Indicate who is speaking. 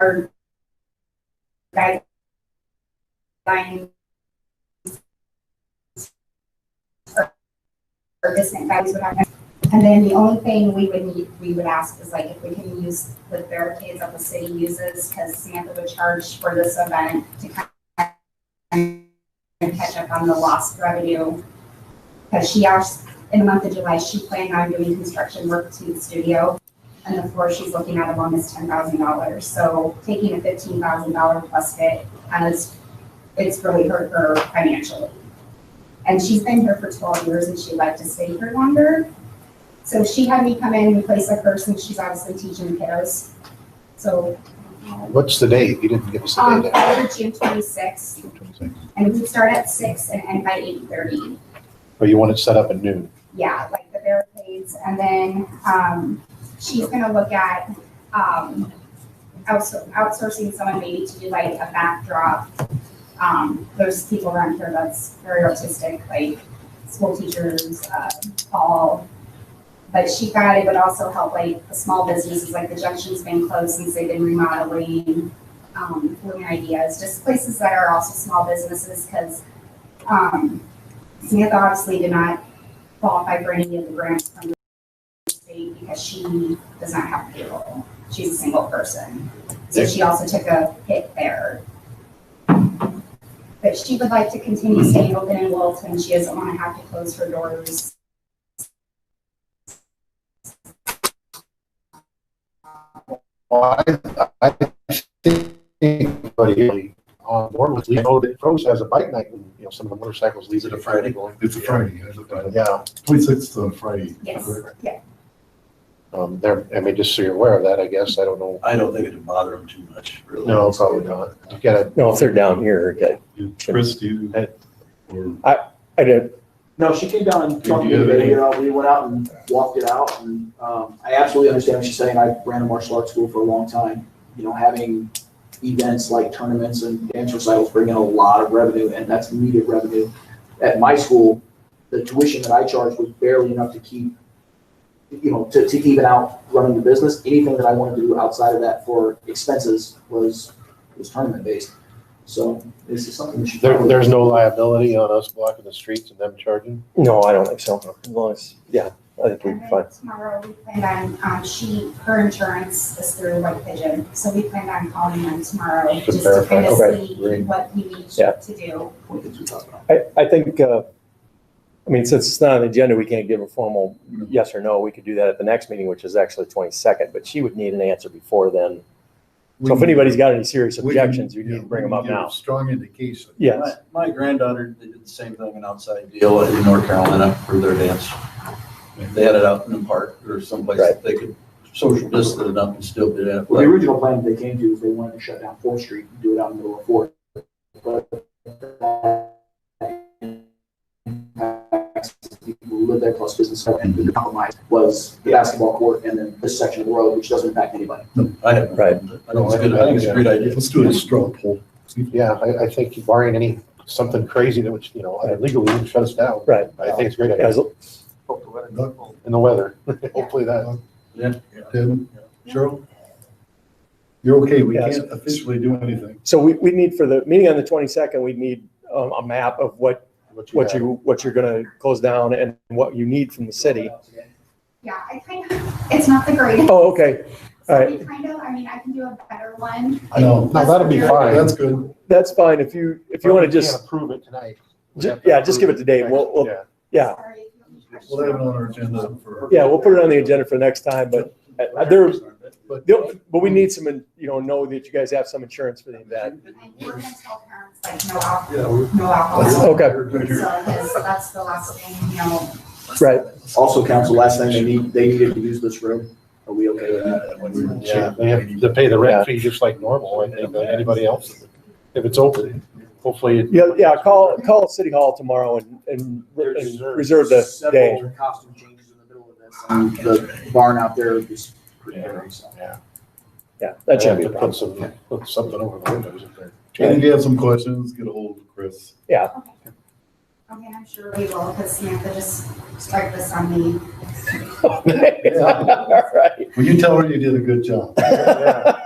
Speaker 1: our guidelines or distant guys would have. And then the only thing we would need, we would ask is like if we can use the barricades that the city uses, because Samantha would charge for this event to kind of catch up on the lost revenue. Because she asked, in the month of July, she planned on doing construction work to the studio. And the floor she's looking at alone is ten thousand dollars, so taking a fifteen thousand dollar plus hit, and it's, it's really hurt her financially. And she's been here for twelve years and she'd like to stay here longer. So she had me come in and replace a person, she's obviously teaching the kiddos. So,
Speaker 2: What's the date? You didn't give us the
Speaker 1: um,
Speaker 2: date.
Speaker 1: over June twenty-sixth, and we start at six and end by eight thirty.
Speaker 2: But you want it set up at noon.
Speaker 1: Yeah, like the barricades, and then, um, she's gonna look at, um, outsour- outsourcing someone maybe to do like a backdrop. Um, there's people around here that's very artistic, like school teachers, uh, Paul. But she thought it would also help like the small businesses, like the Junction's been closed since they've been remodeling. Um, Fluent Ideas, just places that are also small businesses, cause, um, Samantha obviously did not qualify for any of the grants from the state because she does not have payroll. She's a single person. So she also took a hit there. But she would like to continue staying open in Littleton. She doesn't want to have to close her doors.
Speaker 2: Well, I, I think everybody on board with, you know, that Rose has a bike night, and, you know, some of the motorcycles leave it
Speaker 3: It's a
Speaker 2: at
Speaker 3: Friday.
Speaker 2: Friday. going.
Speaker 3: It's a Friday, it's a
Speaker 2: Yeah,
Speaker 3: twenty-sixth on Friday.
Speaker 1: Yes,
Speaker 3: correct?
Speaker 1: yeah.
Speaker 2: um, there, I mean, just so you're aware of that, I guess. I don't know.
Speaker 4: I don't think it'd bother them too much, really.
Speaker 2: No, probably not. You gotta,
Speaker 5: No, if they're down here, okay.
Speaker 3: Chris, do you?
Speaker 2: Hey.
Speaker 3: Or,
Speaker 5: I did,
Speaker 6: No, she came down and
Speaker 3: Did you
Speaker 6: talked to me,
Speaker 3: have any-
Speaker 6: you know, we went out and walked it out, and, um, I absolutely understand what she's saying, I ran a martial arts school for a long time. You know, having events like tournaments and dance recitals bring in a lot of revenue, and that's needed revenue. At my school, the tuition that I charged was barely enough to keep, you know, to, to even out running the business, anything that I wanted to do outside of that for expenses was, was tournament-based. So, this is something we should.
Speaker 2: there,
Speaker 6: probably-
Speaker 2: there's no liability on us blocking the streets and them charging.
Speaker 5: no, I don't think so. As long as, yeah, I think we'd
Speaker 1: And
Speaker 5: be
Speaker 1: then
Speaker 5: fine.
Speaker 1: tomorrow we plan on, um, she, her insurance is through White Pigeon, so we plan on calling them tomorrow
Speaker 2: To
Speaker 1: just to kind of
Speaker 2: verify.
Speaker 1: see
Speaker 2: Great.
Speaker 1: what we need
Speaker 5: Yeah.
Speaker 1: to do.
Speaker 6: Point that you talked about.
Speaker 5: I, I think, uh, I mean, since it's not on the agenda, we can't give a formal yes or no. We could do that at the next meeting, which is actually twenty-second, but she would need an answer before then. So if anybody's got any serious
Speaker 3: We can-
Speaker 5: objections, you need to bring them up
Speaker 3: we can give
Speaker 5: now.
Speaker 3: a Strong indication.
Speaker 5: Yes,
Speaker 4: My my granddaughter did the same thing, an outside deal in North Carolina for their dance. They had it out in the park or someplace that they could social distance enough and still do that.
Speaker 6: Well, the original plan that they came to is they wanted to shut down Fourth Street and do it out in the middle of Fourth. But people who live there plus business and the compromise was the basketball court and then this section of the road, which doesn't impact anybody.
Speaker 4: I have.
Speaker 5: Right.
Speaker 4: I think it's good, I think it's a great idea.
Speaker 3: Let's do a straw poll.
Speaker 2: Yeah, I, I think barring any, something crazy that would, you know, legally wouldn't shut us down.
Speaker 5: Right.
Speaker 2: I think it's a great. idea.
Speaker 5: as,
Speaker 2: And the weather, hopefully that.
Speaker 3: Tim, Cheryl? You're okay, we
Speaker 5: Yes.
Speaker 3: can't officially do anything.
Speaker 5: so we, we need for the meeting on the twenty-second, we'd need um, a map of what, what
Speaker 2: have.
Speaker 5: you, what you're gonna close down and what you need from the city.
Speaker 1: Yeah, I kind of, it's not the greatest.
Speaker 5: Oh, okay, all
Speaker 1: So
Speaker 5: right.
Speaker 1: we kind of, I mean, I can do a better one.
Speaker 3: No,
Speaker 2: No, that'll be fine.
Speaker 3: That's good.
Speaker 5: That's fine. If you, if you want to
Speaker 2: We can't
Speaker 5: just,
Speaker 2: Approve it tonight. We
Speaker 5: ju-
Speaker 2: have to
Speaker 5: yeah, just give it
Speaker 2: approve
Speaker 5: to Dave. We'll, we'll,
Speaker 2: Yeah.
Speaker 5: yeah,
Speaker 1: Sorry.
Speaker 3: We'll have it on our agenda for.
Speaker 5: yeah, we'll put it on the agenda for next time, but, uh, there-
Speaker 3: But
Speaker 5: the- but we need some, you know, know that you guys have some insurance for the event.
Speaker 1: And we're gonna tell parents like no alcohol,
Speaker 3: Yeah, we're-
Speaker 1: no alcohol.
Speaker 5: Okay.
Speaker 1: So, because that's the last thing, you know,
Speaker 5: Right.
Speaker 6: Also, council, last thing they need, they needed to use this room. Are we okay with that?
Speaker 2: Yeah, they have to pay the rent fee just like normal, I think, like anybody else. If it's open, hopefully. it-
Speaker 5: Yeah, yeah, call, call City Hall tomorrow and, and re-
Speaker 2: There's reserve.
Speaker 5: reserve the day.
Speaker 6: Several costume changes in the middle of this. and The barn out there is pretty hairy, so.
Speaker 5: Yeah, that
Speaker 2: They have
Speaker 5: shouldn't be a
Speaker 2: to
Speaker 5: problem.
Speaker 2: Put some, put something over the windows if they're.
Speaker 3: And if you have some questions, get a hold of Chris.
Speaker 1: okay, I'm sure we will, because Samantha just strike this on me.
Speaker 5: Okay, all right.
Speaker 3: Will you tell her you did a good job?
Speaker 2: Yeah.